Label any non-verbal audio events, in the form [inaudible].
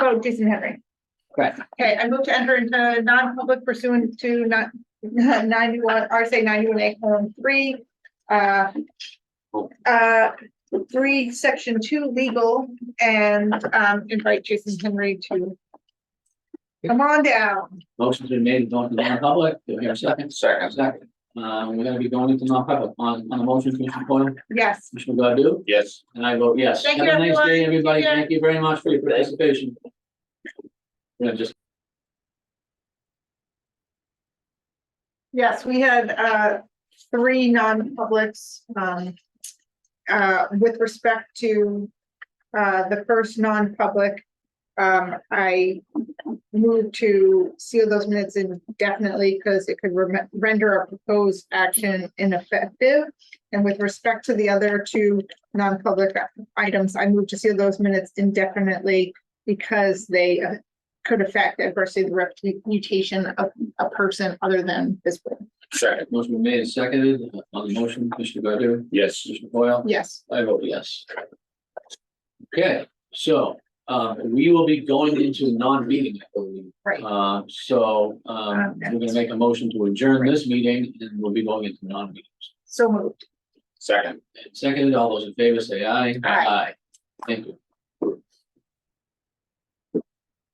Oh, Jason Henry. Correct. Okay, I move to enter into non-public pursuant to not [laughs] ninety-one, RSA ninety-one A, colon, three, uh, uh, three, section two, legal, and, um, invite Jason Henry to come on down. Motion's been made to go into non-public, do we have a second? Second. Second. Uh, we're gonna be going into non-public on, on the motion, Commissioner Coyle, Yes. Commissioner Godu, Yes. and I vote yes. Thank Have you, a nice day, everyone. everybody. Take care. Thank you very much for your participation. Yeah, just Yes, we had uh three non-publics um uh with respect to uh the first non-public. Um, I moved to seal those minutes indefinitely because it could rem- render a proposed action ineffective. And with respect to the other two non-public items, I moved to seal those minutes indefinitely because they uh, could affect adversely the reputation of a person other than this board. Second. motion been made and seconded uh, on the motion, Commissioner Godu, Yes. Commissioner Coyle, Yes. I vote yes. Okay, so, uh, we will be going into non-meeting, I believe. Right. Uh, so, um, we're gonna make a motion to adjourn this meeting and we'll be going into non-meetings. So moved. Second. And seconded, all those in favor say aye. Aye. Thank you.